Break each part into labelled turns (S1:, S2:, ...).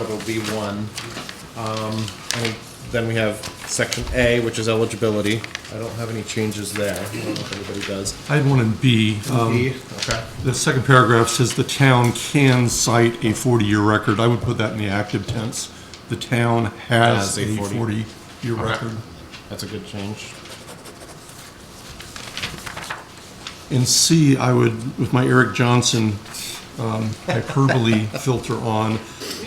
S1: Article B1. Um, and Then we have Section A, which is eligibility. I don't have any changes there. I don't know if anybody does.
S2: I had one in B. Um,
S1: B, okay.
S2: The second paragraph says the town can cite a 40-year record. I would put that in the active tense. The town has
S1: Has
S2: a
S1: a 40.
S2: 40-year
S1: Okay.
S2: record.
S1: That's a good change.
S2: In C, I would, with my Eric Johnson um, hyperbole filter on,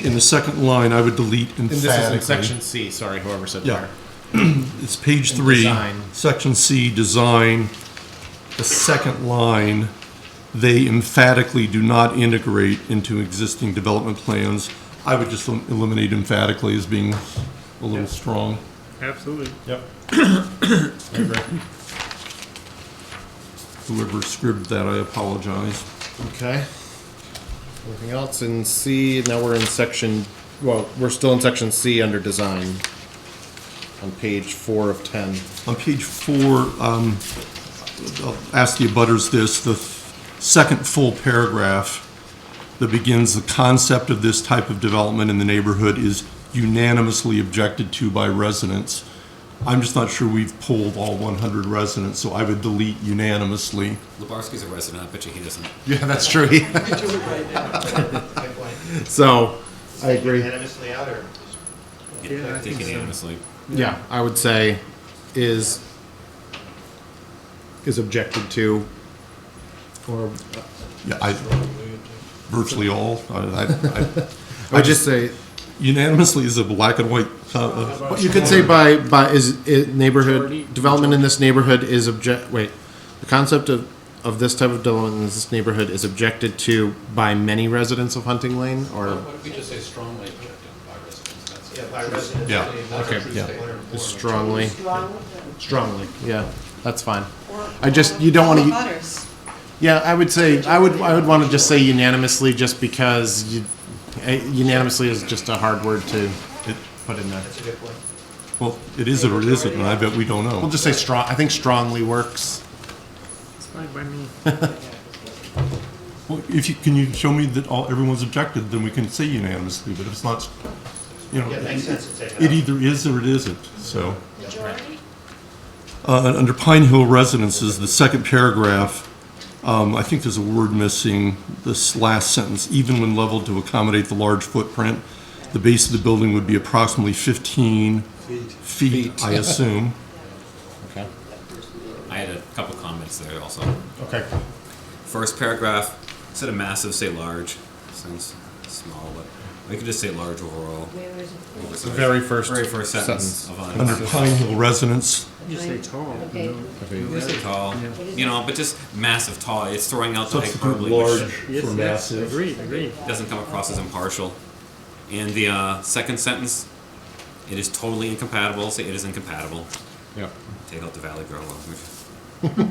S2: in the second line, I would delete
S1: And this is in
S2: emphatically.
S1: Section C, sorry, whoever said
S2: Yeah.
S1: there.
S2: It's page
S1: in
S2: three,
S1: design.
S2: section C, design. The second line, they emphatically do not integrate into existing development plans. I would just elim- eliminate emphatically as being a little strong.
S3: Absolutely.
S1: Yep. I agree.
S2: Whoever scribbled that, I apologize.
S1: Okay. Anything else in C? Now we're in section, well, we're still in section C under design on page four of 10.
S2: On page four, um, I'll ask the abutters this, the second full paragraph that begins, "The concept of this type of development in the neighborhood is unanimously objected to by residents." I'm just not sure we've polled all 100 residents, so I would delete unanimously.
S4: Lebarski's a resident. I bet you he doesn't.
S1: Yeah, that's true. So, I agree.
S5: unanimously out or?
S3: Yeah, I
S4: Take
S3: think so.
S4: unanimously.
S1: Yeah, I would say is is objected to or
S2: Yeah, I, virtually all, I, I- I-
S1: I would just say
S2: unanimously is a black and white, uh, uh,
S1: you could say by by is, is neighborhood development in this neighborhood is object wait the concept of of this type of development in this neighborhood is objected to by many residents of Hunting Lane or
S6: What if we just say strongly objected by residents? That's it.
S5: Yeah, by residents.
S2: Yeah.
S1: Okay.
S5: One
S2: Yeah.
S5: or more.
S1: is strongly
S7: Strong
S1: strongly yeah that's fine
S7: or.
S1: I just- you don't wanna-
S7: Or butters.
S1: yeah I would say I would I would want to just say unanimously just because you, eh, unanimously is just a hard word to put in there.
S5: That's a good point.
S2: well, it is or it isn't, and I bet we don't know.
S1: We'll just say strong. I think strongly works.
S3: It's fine by me.
S2: Well, if you, can you show me that all, everyone's objected, then we can say unanimously, but if it's not, you know,
S5: Yeah, it makes
S2: it
S5: sense to take
S2: it
S5: it out.
S2: either is or it isn't, so.
S7: Majority?
S2: Uh, and under Pine Hill Residences, the second paragraph, um, I think there's a word missing, this last sentence, even when leveled to accommodate the large footprint, the base of the building would be approximately fifteen feet, I assume.
S1: Okay.
S4: I had a couple comments there also.
S1: Okay.
S4: First paragraph, instead of massive, say large. Sounds small, but we could just say large overall.
S7: Where is it?
S4: It's
S1: The very first
S4: very first sentence,
S1: sentence.
S4: of on.
S2: Under Pine Hill Residence,
S3: Just say tall.
S7: Okay.
S3: you know.
S4: Just say tall, you know, but just massive tall. It's throwing out the
S2: substitute
S4: hyperbole,
S2: large
S4: which
S2: for
S3: Yes, yes,
S2: massive.
S3: agreed, agreed.
S4: doesn't come across as impartial. And the uh, second sentence, it is totally incompatible. Say it is incompatible.
S1: Yeah.
S4: Take out the Valley Girl language.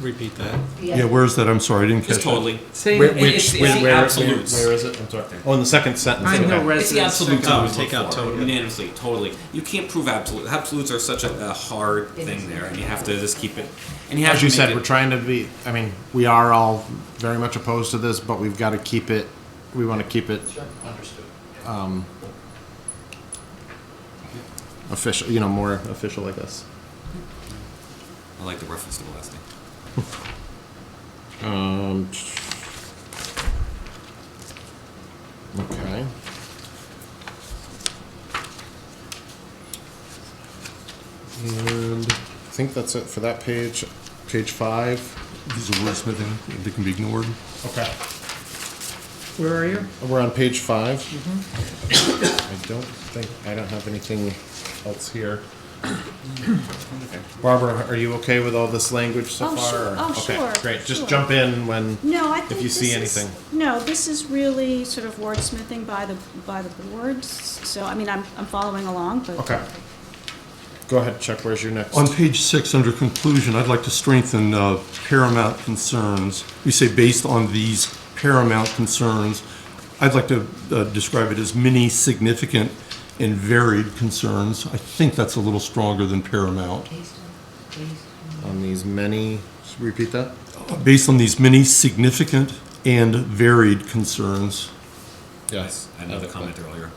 S6: Repeat that.
S2: Yeah, where's that? I'm sorry, I didn't catch
S4: Just
S2: that.
S4: totally.
S3: Same.
S1: Whi-
S4: It-
S1: Which, whi-
S4: it's- it's the
S1: where, where-
S4: absolutes.
S1: where is it? I'm sorry. Oh, in the second sentence.
S3: I know
S1: okay.
S4: It's the
S3: residents.
S4: absolute
S6: second.
S4: I would
S6: Take
S4: look
S6: out
S4: for,
S6: total.
S4: Unanimously, totally. You can't prove absolute. Absolutes are such a, a hard thing there, and you have to just keep it. And you have
S1: As
S4: to
S1: you
S4: make
S1: said,
S4: it-
S1: we're trying to be. I mean, we are all very much opposed to this, but we've got to keep it. We want to keep it
S6: Understood.
S1: um, official. You know, more official like this.
S4: I like the reference to the last name.
S1: Um. Okay. And I think that's it for that page. Page five.
S2: These are wordsmithing, they can be ignored.
S1: Okay.
S3: Where are you?
S1: We're on page five.
S8: Mm-hmm.
S1: I don't think, I don't have anything else here. Barbara, are you okay with all this language so
S8: Oh,
S1: far?
S8: sure.
S1: or-
S8: Oh, sure.
S1: Okay, great, just
S8: Sure.
S1: jump in when,
S8: No, I think
S1: you
S8: this
S1: see
S8: is-
S1: anything.
S8: No, this is really sort of wordsmithing by the, by the boards, so, I mean, I'm, I'm following along, but.
S1: okay. Go ahead, Chuck, where's your next?
S2: On page six, under conclusion, I'd like to strengthen uh, paramount concerns. We say based on these paramount concerns. I'd like to uh, describe it as many significant and varied concerns. I think that's a little stronger than paramount.
S1: On these many, repeat that?
S2: Based on these many significant and varied concerns.
S5: Yeah.
S4: I s- I had another
S5: Okay.
S4: comment earlier.